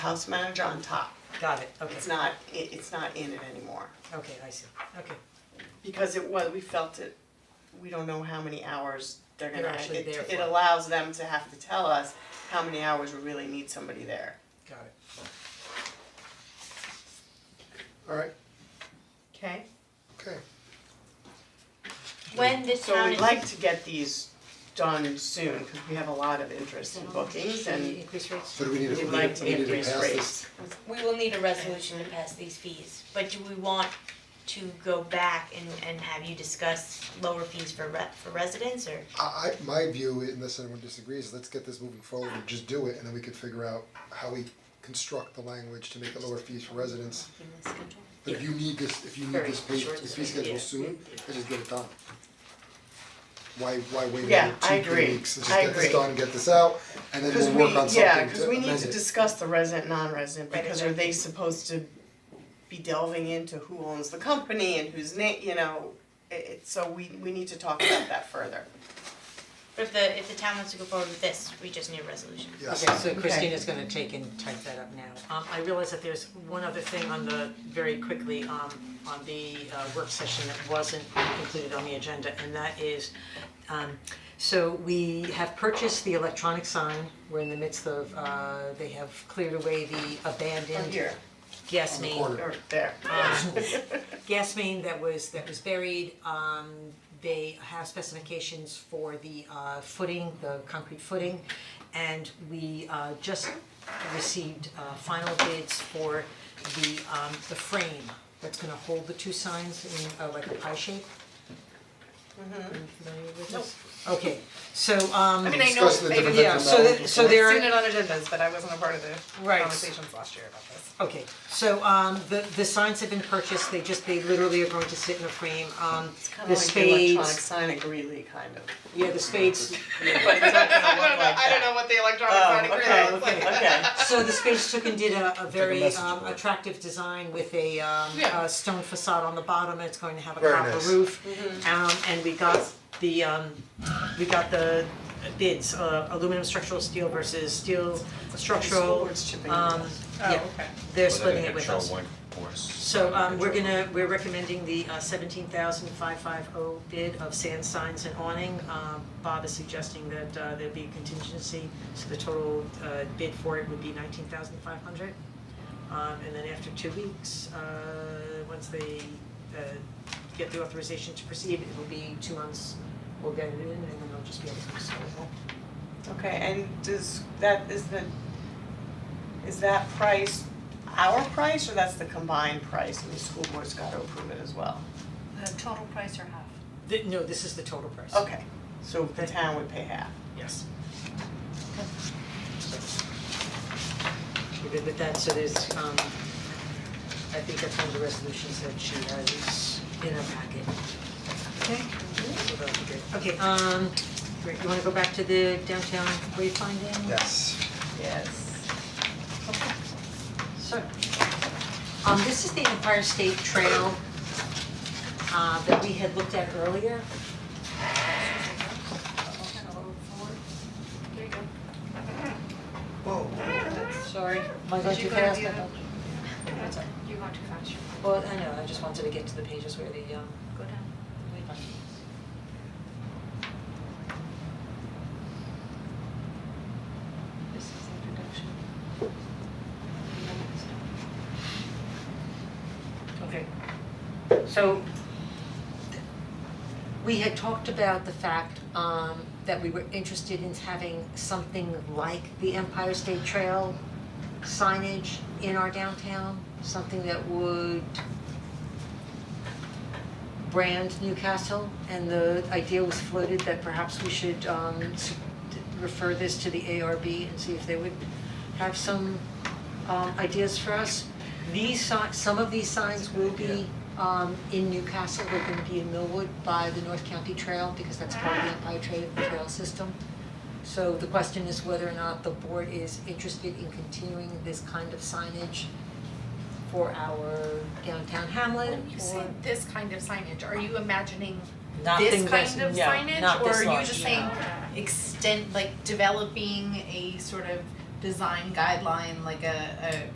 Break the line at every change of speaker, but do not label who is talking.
house manager on top.
Got it, okay,
It's not, it, it's not in it anymore,
okay, I see, okay.
because it was, we felt it, we don't know how many hours they're gonna,
They're actually
it,
there
it
for.
allows them to have to tell us how many hours we really need somebody there.
Got it.
Alright,
Okay.
okay.
When the
So
town
we'd
is,
like to get these done soon, cause we have a lot of interest in bookings and
Increase rates?
So do we need to,
we'd
we need
like
to
to
we need to
increase
pass this?
rates.
we will need a resolution to pass these fees, but do we want to go back and and have you discuss lower fees for re- for residents or?
I I, my view, unless anyone disagrees, is let's get this moving forward and just do it, and then we could figure out how we construct the language to make it lower fees for residents. But if you need this, if you need this
Very
fee,
short
this fee
sweet,
schedule
yeah.
soon, then just get it done. Why, why wait
Yeah,
another
I
two,
agree.
three weeks, let's
I
just get this
agree.
done, get this out, and then
Cause
we'll work on
we, yeah,
something
cause
to
we need
amend
to
it.
discuss the resident, non-resident,
Right,
because are they supposed to be delving into who owns the company and whose name, you know? It, it, so we, we need to talk about that further.
But if the if the town wants to go forward with this, we just need a resolution.
Yes.
Okay, so Christina's gonna take and type that up now. Um, I realize that there's one other thing on the, very quickly, um, on the uh, work session that wasn't included on the agenda, and that is, um, so we have purchased the electronic sign, we're in the midst of, uh, they have cleared away the
From
abandoned
here,
gas
Oh, On the
main.
corner.
or there.
gas main that was that was buried, um they have specifications for the uh footing, the concrete footing. And we uh just received uh final bids for the um the frame that's gonna hold the two signs in uh like a pie shape.
Mm-hmm.
Are you familiar with this? Okay, so um.
I mean, I know,
Discussing the
I
different
know-
Yeah,
types of
so
metal.
that- so there are.
I've seen it on agendas, but I wasn't a part of the
Right.
conversations last year about this.
Okay, so um the the signs have been purchased, they just, they literally are going to sit in a frame, um the
It's kinda like the electronic
spades,
sign at Greeley, kind of.
yeah, the spades,
But it's not gonna look like
I don't
that.
know what the electronic
Oh,
signing
okay,
is like.
okay,
so the spades took and did a a very
message
um
board.
attractive design with a um
Yeah.
a stone facade on the bottom, it's going to have a
Very
copper
nice.
roof.
Mm-hmm.
Um and we got the um, we got the bids, uh aluminum structural steel versus steel structural,
Swords chipping.
um yeah,
Oh, okay.
they're splitting it with us. So um we're
gonna
gonna, we're recommending the uh seventeen thousand five five oh bid of sand signs and awning. Um Bob is suggesting that uh there be contingency, so the total uh bid for it would be nineteen thousand five hundred. Um and then after two weeks, uh once they uh get the authorization to proceed, it will be two months. We'll get it in and then they'll just be able to install it.
okay, and does, that, is the, is that price our price, or that's the combined price, and the school board's gotta approve it as well?
The total price or half?
The- no, this is the total price.
Okay, so the town would pay half.
Yes. We're good with that, so there's, um, I think that's one of the resolutions that she has in her packet. Okay? So that'll be good. Okay, um, great, you wanna go back to the downtown wayfinding?
Yes.
Yes.
So, um, this is the Empire State Trail, uh, that we had looked at earlier.
There you go.
Sorry. Am I going
Did
too
you go to
fast?
the
I
other-
thought- That's all right.
You're going too fast, you're fine.
Well, I know, I just wanted to get to the pages where the, um,
Go down. This is introduction.
Okay. So we had talked about the fact um that we were interested in having something like the Empire State Trail signage in our downtown, something that would brand Newcastle and the idea was floated that perhaps we should um s- refer this to the ARB and see if they would have some um ideas for us. These signs, some of these signs will be um in Newcastle, they're gonna be in Millwood by the North County Trail because that's part of the Empire Trail Trail system. So the question is whether or not the board is interested in continuing this kind of signage for our downtown hamlet
When you
or
say this kind of signage, are you imagining
nothing
this
that's,
kind
no,
of signage?
not this
Or are you
large.
just saying extend, like developing a sort of design guideline, like a, a